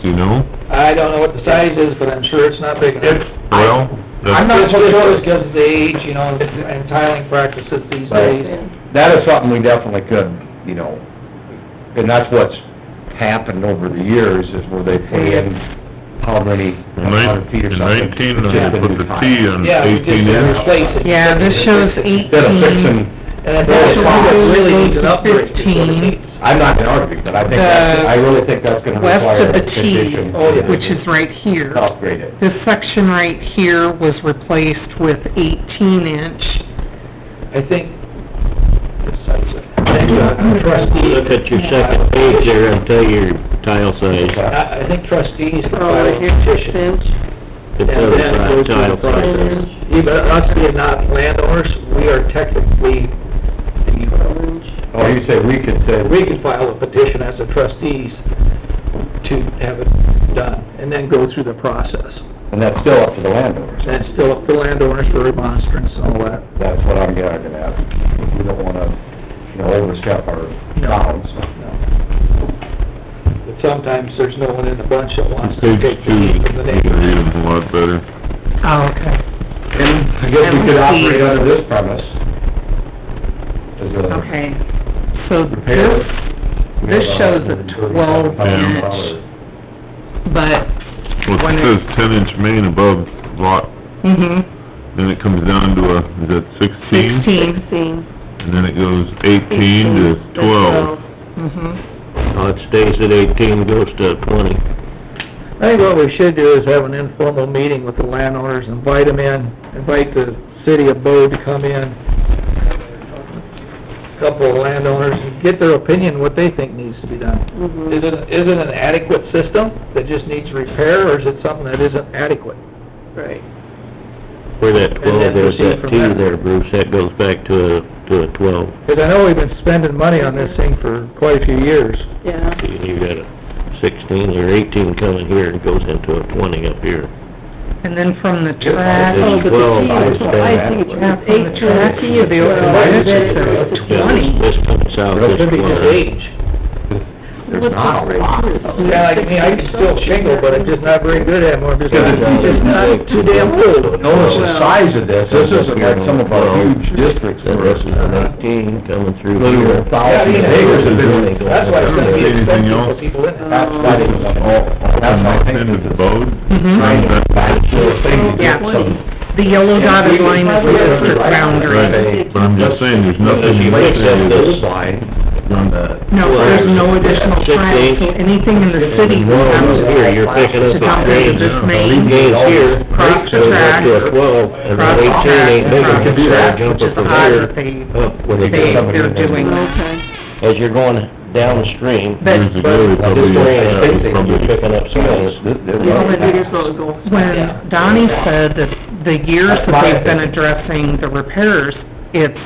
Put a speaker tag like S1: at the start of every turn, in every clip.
S1: do you know?
S2: I don't know what the size is, but I'm sure it's not big enough.
S1: Well,
S2: I'm not
S1: that's,
S2: so sure it's because of the age, you know, and tiling practices these
S3: Right.
S2: days.
S4: Mm-hmm.
S3: That is something we definitely could, you know, and that's what's happened over the years, is where they put in how many,
S1: in nine-
S3: hundred feet or
S1: in
S3: something.
S1: nineteen,
S3: It's
S1: I
S3: just a
S1: put
S3: new
S1: the
S3: tile.
S1: T on
S2: Yeah, we just
S1: eighteen
S2: gotta
S1: inch.
S2: replace it.
S5: Yeah, this shows
S3: Instead of
S5: 18.
S3: fixing,
S2: And if that's
S3: Well,
S2: what it really needs an
S5: it's
S2: upgrade, is what it
S5: 15.
S2: needs.
S3: I'm not gonna argue, but I think that's, I really think that's gonna
S5: West
S3: require
S5: of
S3: a
S5: the T,
S3: condition.
S2: Oh, yeah.
S5: which is right here.
S3: Upgrade it.
S5: This section right here was replaced with eighteen inch.
S2: I think, the size of, thank you, trustee,
S4: Look at your second page there and tell your tile size,
S2: I I think trustees can file a petition.
S4: the
S2: And
S4: total
S2: then go
S4: size,
S2: through the
S4: tile
S2: process.
S4: size.
S2: Even us being not landowners, we are technically, the-
S3: Oh, you say we could say,
S2: we can file a petition as a trustees to have it done, and then go through the process.
S3: and that's still up to the landowners.
S2: That's still up to landowners for remonstrance and all that.
S3: That's what I'm gonna ask. We don't wanna, you know, overstep our bounds.
S2: But sometimes there's no one in the bunch that wants to
S1: Page
S2: take the
S1: two, you can
S2: heat from the
S1: read
S2: neighbor.
S1: them a lot better.
S5: Oh, okay.
S3: And I guess we could operate under this premise. As a-
S5: Okay, so
S3: Repair.
S5: this, this shows a twelve
S3: Yeah.
S5: inch, but,
S1: Well,
S5: When
S1: it
S5: it-
S1: says ten inch main above lot,
S5: mhm,
S1: then it comes down to a, is that sixteen?
S5: sixteen,
S1: And then it goes eighteen to twelve.
S5: mhm.
S4: Oh, it stays at eighteen, goes to twenty.
S2: I think what we should do is have an informal meeting with the landowners, invite them in, invite the city of Bo to come in, couple of landowners, and get their opinion, what they think needs to be done. Is it, is it an adequate system that just needs repair, or is it something that isn't adequate?
S6: Right.
S4: Where that
S2: And then
S4: twelve, there's
S2: proceed
S4: that
S2: from
S4: T
S2: there.
S4: there, Bruce, that goes back to a, to a twelve.
S2: Because I know we've been spending money on this thing for quite a few years.
S6: Yeah,
S4: You got a sixteen or eighteen coming here and goes into a twenty up here.
S5: And then from the
S3: Yeah,
S5: track,
S4: Then
S6: Oh, but the
S4: twelve,
S6: T
S4: I would
S6: is-
S4: say
S6: I
S4: that
S6: think
S4: way.
S6: it's-
S5: yeah, from the
S6: Eight
S5: track
S6: to-
S5: to the old,
S3: Why
S5: one,
S3: is
S5: this
S3: it-
S5: is
S3: it's
S4: Yeah,
S5: twenty.
S4: This comes out
S3: Real
S4: this
S3: could be just
S4: corner.
S2: Age.
S3: There's not a lot.
S2: Yeah, like me, I can still shingle, but I'm just not very good at it, I'm just,
S3: Yeah,
S2: it's just not too damn old.
S3: Notice the size of this, this isn't like some of our huge districts
S4: Then
S3: where
S4: this
S3: it's
S4: is an eighteen coming through
S3: literally
S4: here.
S3: a thousand
S2: Yeah,
S3: acres of
S4: yeah.
S3: building.
S2: That's why it's gonna be
S1: Anything
S2: expensive
S1: else?
S2: for people in it.
S3: That's why it was all,
S1: Open
S3: that's why I
S1: up
S3: think
S1: into
S3: this
S1: the
S3: is
S1: boat.
S5: Mhm.
S3: kind of back to a thing to
S5: Yeah.
S3: get some
S5: The yellow dotted line is the
S3: Right.
S5: boundary.
S1: Right, but I'm just saying, there's nothing in
S4: Let's
S1: this
S4: set
S1: area
S4: this
S1: that's
S3: line.
S1: on that.
S5: No, there's no additional
S4: Six
S5: track,
S4: eight.
S5: so anything in the city
S4: Comes
S5: comes
S4: here, you're picking up
S5: to
S4: a
S5: down to
S4: drain.
S5: this
S4: Three
S5: main,
S4: gates here,
S5: Cross the
S4: goes up
S5: track.
S4: to a twelve, and
S5: Cross
S4: then
S5: the
S4: eighteen ain't big
S5: track,
S4: enough, so
S5: cross,
S4: jump
S5: which
S4: it
S5: is
S4: from Oh,
S5: odd
S4: here
S5: that they,
S4: up where you
S3: They-
S4: go.
S5: they, they're doing that.
S6: okay.
S4: As you're going down the stream,
S5: But-
S1: Years ago, they
S4: this
S1: probably,
S4: drain, I
S1: that
S4: think
S1: was
S4: they
S1: probably
S4: were picking up some of this.
S5: When Donnie said that the years that they've been addressing the repairs, it's,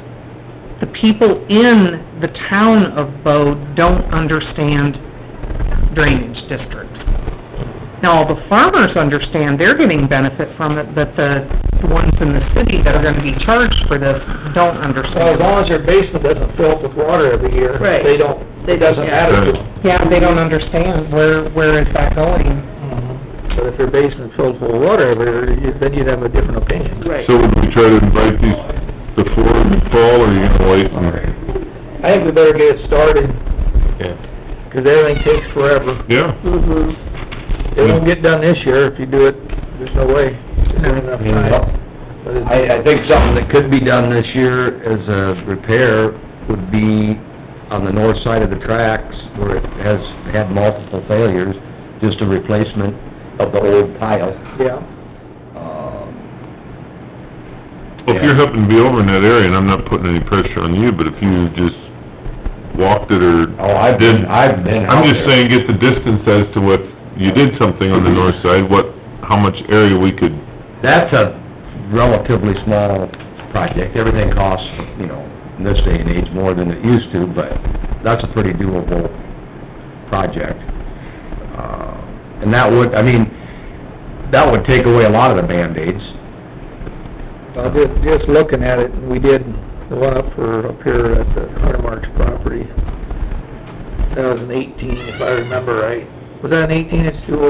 S5: the people in the town of Bode don't understand drainage districts. Now, the farmers understand, they're getting benefit from it, but the ones in the city that are gonna be charged for this don't
S2: Well, as
S5: understand.
S2: long as your basement doesn't fill up with water every year,
S6: Right.
S2: they don't,
S6: They
S2: it
S6: don't,
S2: doesn't
S6: yeah.
S2: matter to
S1: Right.
S2: them.
S5: Yeah, they don't understand, where, where is that going?
S6: Mm-hmm.
S2: But if your basement filled full of water every year, you- then you'd have a different opinion.
S6: Right.
S1: So would we try to invite these before the fall, or are you gonna wait and,
S2: I think we better get it started,
S4: Yeah.
S2: 'cause everything takes forever.
S1: yeah?
S6: Mm-hmm.
S2: It won't get done this year if you do it, there's no way. There's not enough time. But it's-
S3: I, I think something that could be done this year as a repair would be on the north side of the tracks where it has had multiple failures, just a replacement of the old tile.
S2: Yeah.
S3: Um,
S1: Well, if you happen to be over in that area, and I'm not putting any pressure on you, but if you just walked it or
S3: Oh, I've
S1: did...
S3: been, I've been out
S1: I'm just
S3: there.
S1: saying, get the distance as to what, you did something on the north side, what, how much area we could,
S3: That's a relatively small project. Everything costs, you know, in this day and age, more than it used to, but that's a pretty doable project. Uh, And that would, I mean, that would take away a lot of the Band-Aids.
S2: Well, just, just looking at it, we did the one up for, up here at the Hunter Marks property. That was an eighteen, if I remember right. Was that an eighteen inch too